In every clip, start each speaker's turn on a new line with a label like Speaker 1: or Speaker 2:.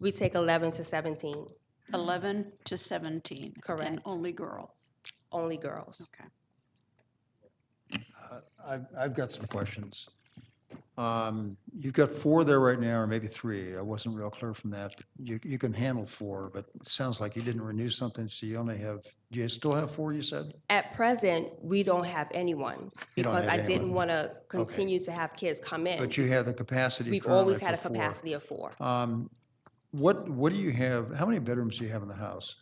Speaker 1: We take 11 to 17,
Speaker 2: 11 to 17?
Speaker 1: Correct.
Speaker 2: And only girls?
Speaker 1: only girls.
Speaker 2: Okay.
Speaker 3: I've, I've got some questions. Um, You've got four there right now, or maybe three. I wasn't real clear from that. You, you can handle four, but it sounds like you didn't renew something, so you only have, do you still have four, you said?
Speaker 1: At present, we don't have anyone
Speaker 3: You don't
Speaker 1: because
Speaker 3: have
Speaker 1: I didn't
Speaker 3: anyone.
Speaker 1: want to continue to have kids come in.
Speaker 3: But you have the capacity
Speaker 1: We've
Speaker 3: currently
Speaker 1: always had a
Speaker 3: for four.
Speaker 1: capacity of four.
Speaker 3: Um, What, what do you have, how many bedrooms do you have in the house?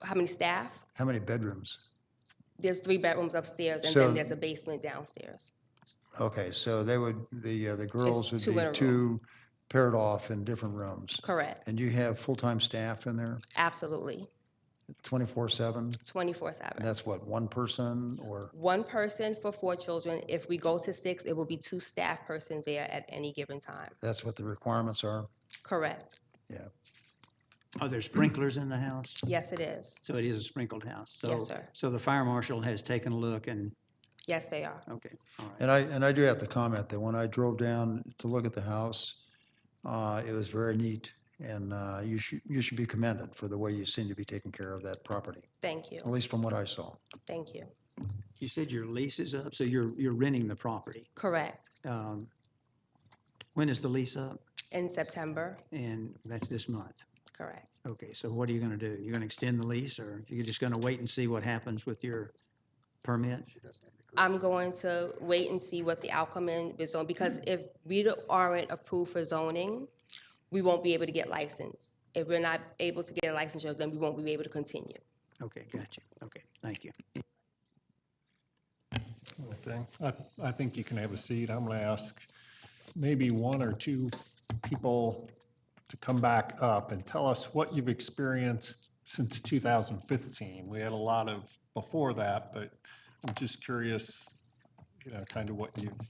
Speaker 1: How many staff?
Speaker 3: How many bedrooms?
Speaker 1: There's three bedrooms upstairs and
Speaker 3: So-
Speaker 1: then there's a basement downstairs.
Speaker 3: Okay, so they would, the, uh, the girls would
Speaker 1: two in a
Speaker 3: be
Speaker 1: room.
Speaker 3: two paired off in different rooms.
Speaker 1: Correct,
Speaker 3: And you have full-time staff in there,
Speaker 1: absolutely,
Speaker 3: 24/7?
Speaker 1: 24/7.
Speaker 3: And that's what, one person or,
Speaker 1: one person for four children. If we go to six, it will be two staff persons there at any given time.
Speaker 3: that's what the requirements are?
Speaker 1: Correct.
Speaker 3: Yeah.
Speaker 4: Are there Oh, sprinklers in the house?
Speaker 1: Yes, it is.
Speaker 4: So it is a sprinkled house?
Speaker 1: Yes,
Speaker 4: So-
Speaker 1: sir.
Speaker 4: So the fire marshal has taken a look and,
Speaker 1: Yes, they are.
Speaker 4: okay, all right.
Speaker 3: And I, and I do have to comment that when I drove down to look at the house, uh, it was very neat. And, uh, you should, you should be commended for the way you seem to be taking care of that property,
Speaker 1: Thank
Speaker 3: at
Speaker 1: you.
Speaker 3: least from what I saw.
Speaker 1: Thank you.
Speaker 4: You said your lease is up, so you're, you're renting the property.
Speaker 1: Correct.
Speaker 4: Um, When is the lease up?
Speaker 1: In September,
Speaker 4: And that's this month.
Speaker 1: correct.
Speaker 4: Okay, so what are you going to do? You're going to extend the lease or you're just going to wait and see what happens with your permit?
Speaker 1: I'm going to wait and see what the outcome is with zone, because if we don't- aren't approved for zoning, we won't be able to get licensed. If we're not able to get a licensure, then we won't be able to continue.
Speaker 4: Okay, got you. Okay, thank you.
Speaker 5: little thing. I, I think you can have a seat. I'm going to ask maybe one or two people to come back up and tell us what you've experienced since 2015. We had a lot of before that, but I'm just curious, you know, kind of what you've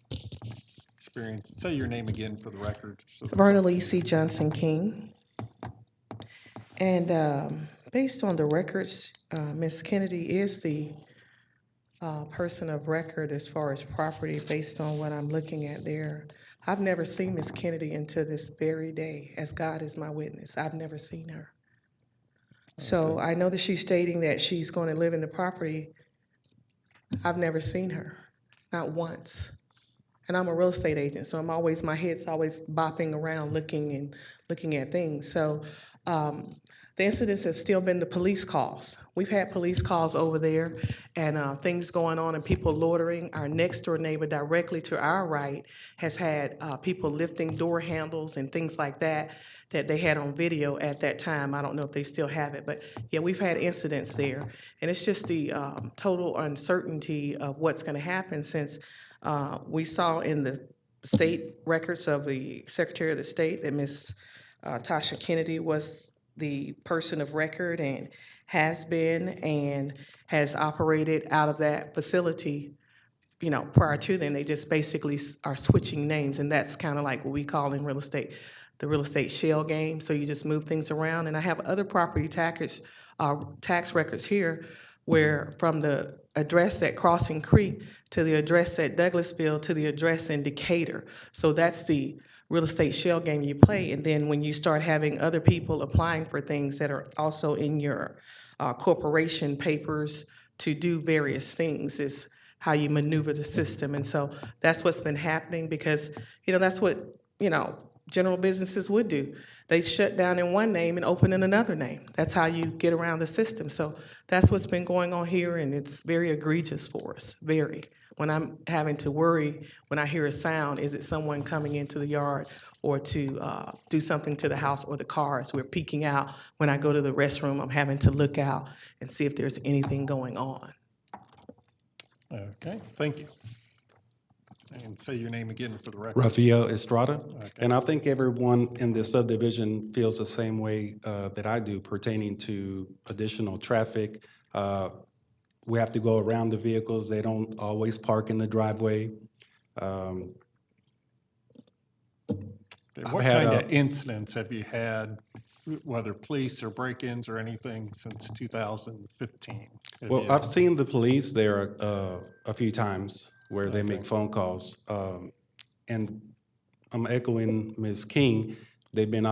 Speaker 5: experienced. Say your name again for the record. so the-
Speaker 6: Verna Lisi Johnson King. And um, based on the records, uh, Ms. Kennedy is the uh, person of record as far as property, based on what I'm looking at there. I've never seen Ms. Kennedy until this very day, as God is my witness. I've never seen her. So I know that she's stating that she's going to live in the property. I've never seen her, not once. And I'm a real estate agent, so I'm always, my head's always bopping around looking and looking at things. So um, the incidents have still been the police calls. We've had police calls over there and uh, things going on and people loitering. Our next door neighbor directly to our right has had uh, people lifting door handles and things like that that they had on video at that time. I don't know if they still have it, but yeah, we've had incidents there. And it's just the um, total uncertainty of what's going to happen since uh, we saw in the state records of the Secretary of the State that Ms. uh, Tasha Kennedy was the person of record and has been and has operated out of that facility, you know, prior to then. They just basically s- are switching names, and that's kind of like what we call in real estate, the real estate shell game. So you just move things around. And I have other property taxes, uh, tax records here where from the address at Crossing Creek to the address at Douglasville to the address in Decatur. So that's the real estate shell game you play. And then when you start having other people applying for things that are also in your uh, corporation papers to do various things is how you maneuver the system. And so that's what's been happening because, you know, that's what, you know, general businesses would do. They shut down in one name and open in another name. That's how you get around the system. So that's what's been going on here, and it's very egregious for us, very. When I'm having to worry, when I hear a sound, is it someone coming into the yard or to uh, do something to the house or the cars? We're peeking out. When I go to the restroom, I'm having to look out and see if there's anything going on.
Speaker 5: Okay, thank you. And say your name again for the record.
Speaker 7: Rafael Estrada. And I think everyone in this subdivision feels the same way uh, that I do pertaining to additional traffic. Uh, We have to go around the vehicles. They don't always park in the driveway. Um,
Speaker 5: Okay, What
Speaker 7: had uh,
Speaker 5: kind
Speaker 7: a-
Speaker 5: of incidents have you had, whether police or break-ins or anything, since 2015? Have
Speaker 7: Well,
Speaker 5: you-
Speaker 7: I've seen the police there uh, a few times where they make phone calls. Um, And I'm echoing Ms. King, they've been